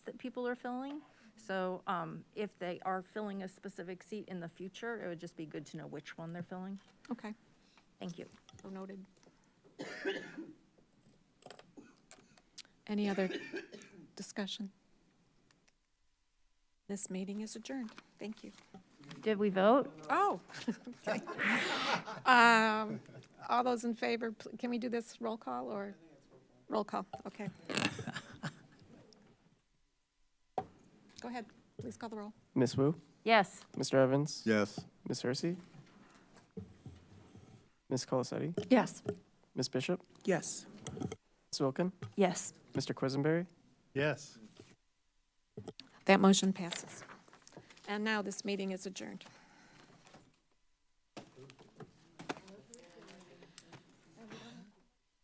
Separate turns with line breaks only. people are filling. So um, if they are filling a specific seat in the future, it would just be good to know which one they're filling.
Okay,
Thank you.
so noted. Any other discussion? This meeting is adjourned. Thank you.
Did we vote?
Oh. okay. Um, All those in favor, pl- can we do this roll call or? Roll call, okay. Go ahead, please call the roll.
Miss Wu,
Yes.
Mr. Evans,
Yes.
Miss Hersey, Miss Colacetti,
Yes.
Miss Bishop,
Yes.
Miss Wilkin,
Yes.
Mr. Quisenberry,
Yes.
That motion passes. And now this meeting is adjourned.